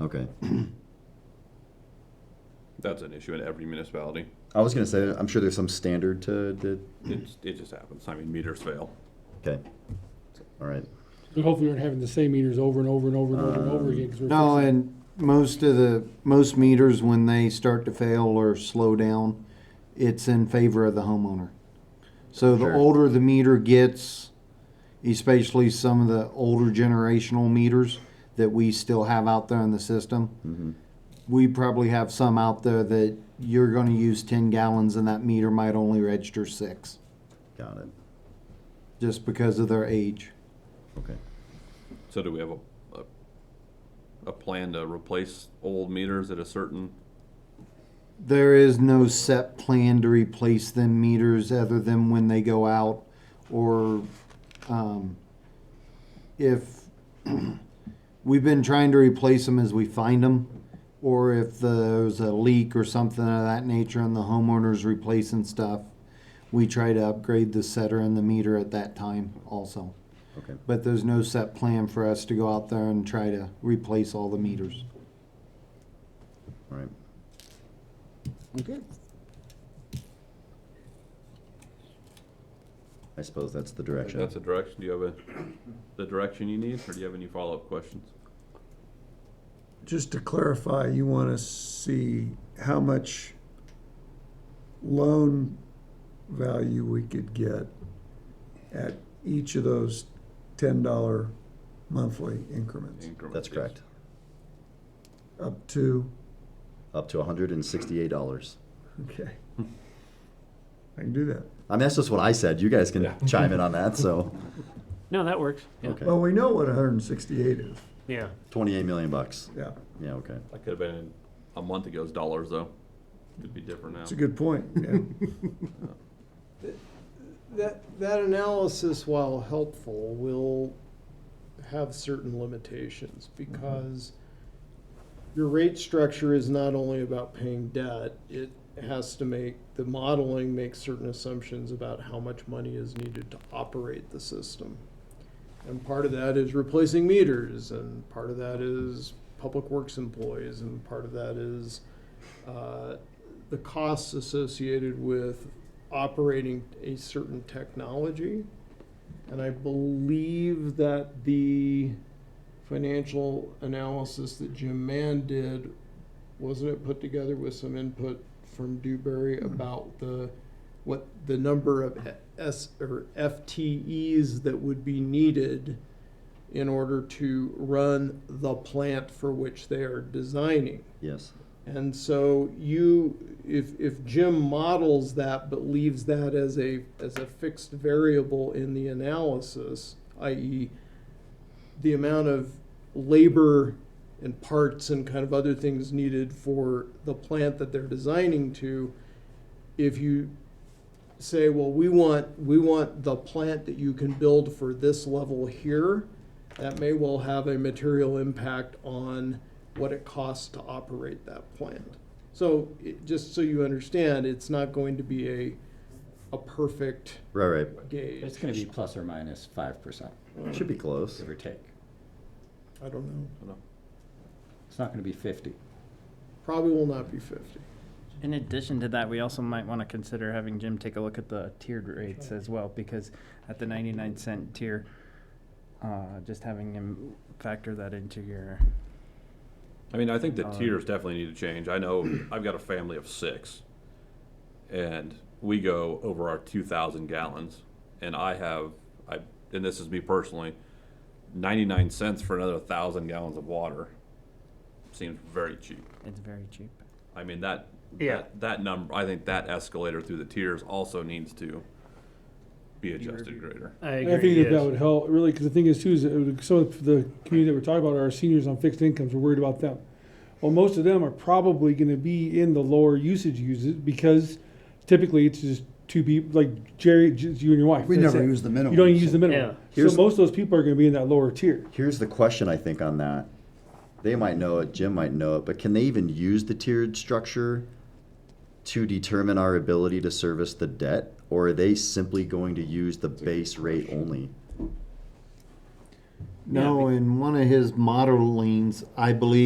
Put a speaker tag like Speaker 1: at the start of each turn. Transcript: Speaker 1: Okay.
Speaker 2: That's an issue in every municipality.
Speaker 1: I was gonna say, I'm sure there's some standard to, to,
Speaker 2: It's, it just happens. I mean, meters fail.
Speaker 1: okay. All right.
Speaker 3: So hopefully we're not having the same meters over and over and over and over and over again. 'cause we're
Speaker 4: Um, No,
Speaker 3: fixing-
Speaker 4: and most of the, most meters, when they start to fail or slow down, it's in favor of the homeowner. So the
Speaker 1: Sure.
Speaker 4: older the meter gets, especially some of the older generational meters that we still have out there in the system, we probably have some out there that you're gonna use ten gallons and that meter might only register six,
Speaker 1: Got it.
Speaker 4: just because of their age.
Speaker 1: Okay.
Speaker 2: So do we have a, a, a plan to replace old meters at a certain,
Speaker 4: There is no set plan to replace them meters other than when they go out or um, if we've been trying to replace them as we find them or if there's a leak or something of that nature and the homeowner's replacing stuff, we try to upgrade the setter and the meter at that time also.
Speaker 1: Okay.
Speaker 4: But there's no set plan for us to go out there and try to replace all the meters.
Speaker 1: All right.
Speaker 3: Okay.
Speaker 1: I suppose that's the
Speaker 2: if
Speaker 1: direction.
Speaker 2: that's a direction, do you have a, the direction you need, or do you have any follow-up questions?
Speaker 5: Just to clarify, you want to see how much loan value we could get at each of those $10 monthly increments,
Speaker 2: Increments,
Speaker 1: That's
Speaker 2: yes.
Speaker 1: correct.
Speaker 5: up to,
Speaker 1: Up to hundred and sixty-eight dollars.
Speaker 5: okay. I can do that.
Speaker 1: I mean, that's just what I said. You guys can
Speaker 2: Yeah.
Speaker 1: chime in on that. So,
Speaker 6: No, that works. Yeah.
Speaker 1: okay.
Speaker 5: Well, we know what 168 is,
Speaker 6: Yeah.
Speaker 1: Twenty-eight million bucks.
Speaker 5: yeah.
Speaker 1: Yeah. Okay.
Speaker 2: That could have been a month ago's dollars, though. Could be different now.
Speaker 5: It's a good point, yeah.
Speaker 7: That, that analysis, while helpful, will have certain limitations because your rate structure is not only about paying debt, it has to make, the modeling makes certain assumptions about how much money is needed to operate the system. And part of that is replacing meters, and part of that is public works employees, and part of that is uh, the costs associated with operating a certain technology. And I believe that the financial analysis that Jim Mann did, wasn't it put together with some input from Dewberry about the, what the number of S or FTEs that would be needed in order to run the plant for which they are designing?
Speaker 1: Yes.
Speaker 7: And so you, if, if Jim models that but leaves that as a, as a fixed variable in the analysis, i.e. the amount of labor and parts and kind of other things needed for the plant that they're designing to, if you say, well, we want, we want the plant that you can build for this level here, that may well have a material impact on what it costs to operate that plant. So, it- just so you understand, it's not going to be a, a perfect
Speaker 1: Right. Right.
Speaker 7: gauge.
Speaker 8: It's gonna be plus or minus five percent,
Speaker 1: Should be close.
Speaker 8: give or take.
Speaker 7: I don't know,
Speaker 8: It's not gonna be fifty.
Speaker 7: probably will not be fifty.
Speaker 6: In addition to that, we also might want to consider having Jim take a look at the tiered rates as well, because at the 99 cent tier, uh, just having him factor that into your.
Speaker 2: I mean, I think the
Speaker 6: Uh,
Speaker 2: tiers definitely need to change. I know I've got a family of six, and we go over our two thousand gallons, and I have, I, and this is me personally, ninety-nine cents for another thousand gallons of water seems very cheap.
Speaker 6: It's very cheap.
Speaker 2: I mean that,
Speaker 6: Yeah.
Speaker 2: that, that number. I think that escalator through the tiers also needs to be adjusted greater.
Speaker 3: I think that that would help, really, because the thing is too, is it would- some of the community that we're talking about are our seniors on fixed incomes, we're worried about them. Well, most of them are probably gonna be in the lower usage uses, because typically it's just two people, like Jerry, just you and your wife.
Speaker 4: We
Speaker 3: that's
Speaker 4: never
Speaker 3: it.
Speaker 4: use the minimum,
Speaker 3: You don't use the
Speaker 6: Yeah.
Speaker 3: minimum. So
Speaker 1: Here's-
Speaker 3: most of those people are gonna be in that lower tier.
Speaker 1: Here's the question I think on that. They might know it, Jim might know it, but can they even use the tiered structure to determine our ability to service the debt? Or are they simply going to use the base rate only?
Speaker 4: No, in one of his modelings, I believe